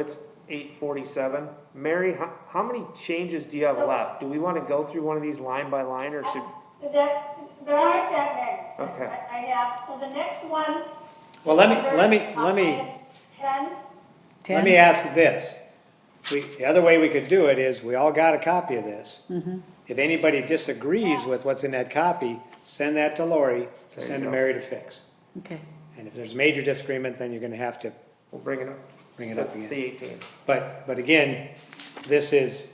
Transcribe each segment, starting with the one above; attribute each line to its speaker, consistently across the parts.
Speaker 1: It's eight forty-seven. Mary, how, how many changes do you have left? Do we wanna go through one of these line by line, or should,
Speaker 2: That, there aren't that many.
Speaker 1: Okay.
Speaker 2: I I have, so the next one.
Speaker 3: Well, let me, let me, let
Speaker 2: I'll
Speaker 3: me,
Speaker 2: add Ten,
Speaker 3: let me ask this. We, the other way we could do it is, we all got a copy of this. If anybody disagrees with what's in that copy, send that to Lori to send to Mary to fix.
Speaker 4: Okay,
Speaker 3: And if there's major disagreement, then you're gonna have to
Speaker 1: we'll bring it up?
Speaker 3: bring it up
Speaker 1: The
Speaker 3: again.
Speaker 1: eighteen.
Speaker 3: But, but again, this is,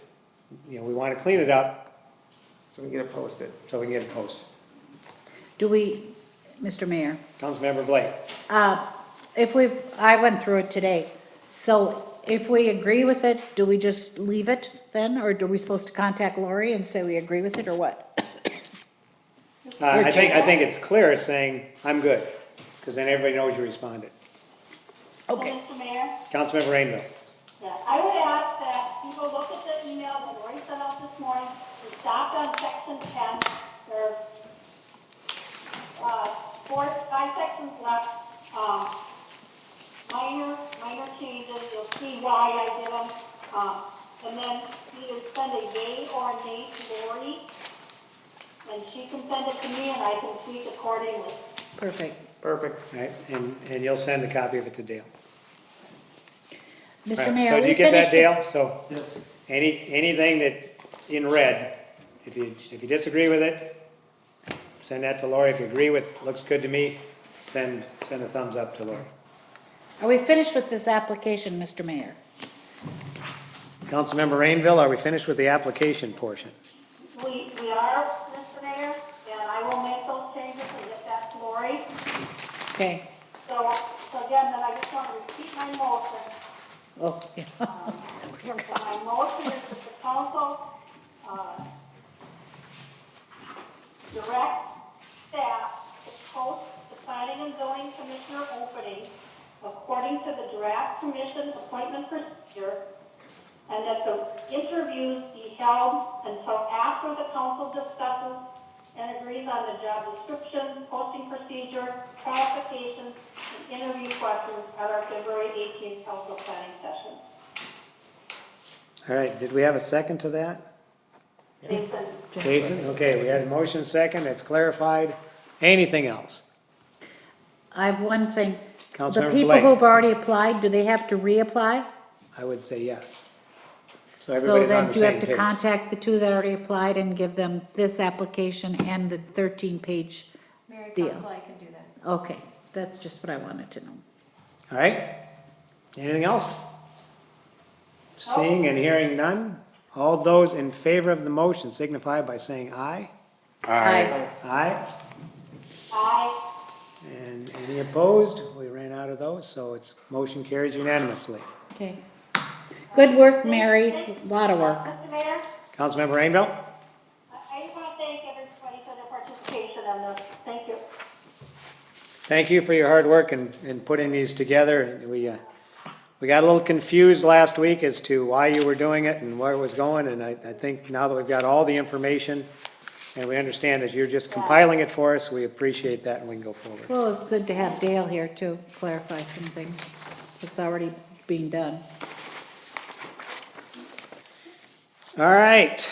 Speaker 3: you know, we wanna clean it up
Speaker 1: So we can get it posted.
Speaker 3: so we can get it posted.
Speaker 4: do we, Mr. Mayor,
Speaker 3: Councilmember Blake,
Speaker 4: uh, if we've, I went through it today, so if we agree with it, do we just leave it then, or are we supposed to contact Lori and say we agree with it, or what?
Speaker 3: uh, I think, I think it's clear as saying, I'm good, cause then everybody knows you responded.
Speaker 2: so
Speaker 4: Okay,
Speaker 2: Mr. Mayor,
Speaker 3: Councilmember Rainville,
Speaker 2: yeah, I would ask that people look at the email that Lori sent out this morning. We stopped on section ten, there are, uh, four, five sections left, um, minor, minor changes, you'll see why I did them. Um, and then either send a yay or a nay to Lori, and she can send it to me and I can tweak accordingly.
Speaker 4: perfect.
Speaker 1: Perfect.
Speaker 3: right, and, and you'll send a copy of it to Dale.
Speaker 4: Mr.
Speaker 3: Right,
Speaker 4: Mayor,
Speaker 3: So do
Speaker 4: we
Speaker 3: you get that,
Speaker 4: finished.
Speaker 3: Dale? So, any, anything that, in red, if you, if you disagree with it, send that to Lori. If you agree with, looks good to me, send, send a thumbs up to Lori.
Speaker 4: Are we finished with this application, Mr. Mayor?
Speaker 3: Councilmember Rainville, are we finished with the application portion?
Speaker 2: We, we are, Mr. Mayor, and I will make those changes and get that to Lori.
Speaker 4: Okay,
Speaker 2: So, so again, then I just want to repeat my motion.
Speaker 4: oh, yeah,
Speaker 2: So my motion is that the council, uh, direct staff to post the planning and zoning commissioner opening according to the draft commission appointment procedure, and that the interviews be held until after the council discusses and agrees on the job description, posting procedure, qualifications, and interview questions at our February 18th council planning session.
Speaker 3: All right, did we have a second to that?
Speaker 2: Jason,
Speaker 3: Jason, okay, we had a motion second, it's clarified. Anything else?
Speaker 4: I have one thing. The
Speaker 3: Councilmember
Speaker 4: people
Speaker 3: Blake.
Speaker 4: who've already applied, do they have to reapply?
Speaker 3: I would say yes. So
Speaker 4: So
Speaker 3: everybody's on
Speaker 4: then
Speaker 3: the
Speaker 4: do you have
Speaker 3: same
Speaker 4: to
Speaker 3: page.
Speaker 4: contact the two that already applied and give them this application and the thirteen-page
Speaker 5: Mayor
Speaker 4: Deal.
Speaker 5: Council, I can do that.
Speaker 4: Okay, that's just what I wanted to know.
Speaker 3: All right, anything else? Seeing and hearing none, all those in favor of the motion signify by saying aye.
Speaker 4: Aye.
Speaker 3: Aye,
Speaker 2: aye.
Speaker 3: and any opposed? We ran out of those, so it's, motion carries unanimously.
Speaker 4: Okay. Good work, Mary, a lot of work.
Speaker 2: Mr. Mayor,
Speaker 3: Councilmember Rainville?
Speaker 2: I I just want to thank everybody for their participation on this. Thank you.
Speaker 3: Thank you for your hard work in, in putting these together. We, uh, we got a little confused last week as to why you were doing it and where it was going, and I, I think now that we've got all the information and we understand that you're just compiling it for us, we appreciate that and we can go forward.
Speaker 4: Well, it's good to have Dale here to clarify some things that's already being done.
Speaker 3: All right.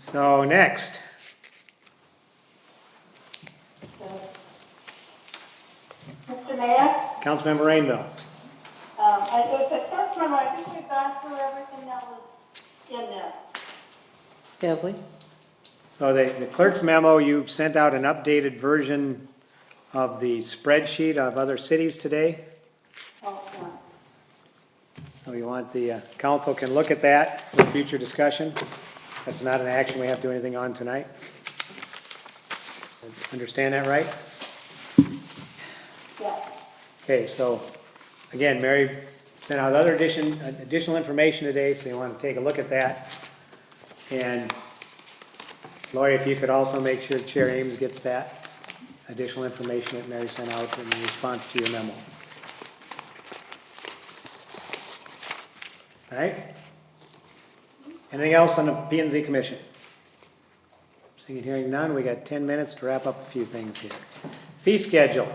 Speaker 3: So next,
Speaker 2: Mr. Mayor,
Speaker 3: Councilmember Rainville.
Speaker 2: um, I think the first one, I think we've gone through everything that was in there.
Speaker 4: Have we?
Speaker 3: So the the clerk's memo, you sent out an updated version of the spreadsheet of other cities today.
Speaker 2: Oh, no.
Speaker 3: So you want, the uh, council can look at that for future discussion. That's not an action we have to do anything on tonight. Understand that, right?
Speaker 2: Yes.
Speaker 3: Okay, so, again, Mary sent out other addition, additional information today, so you want to take a look at that. And Lori, if you could also make sure Chair Ames gets that additional information that Mary sent out in response to your memo. All right? Anything else on the P and Z Commission? Seeing and hearing none, we got ten minutes to wrap up a few things here. Fee schedule.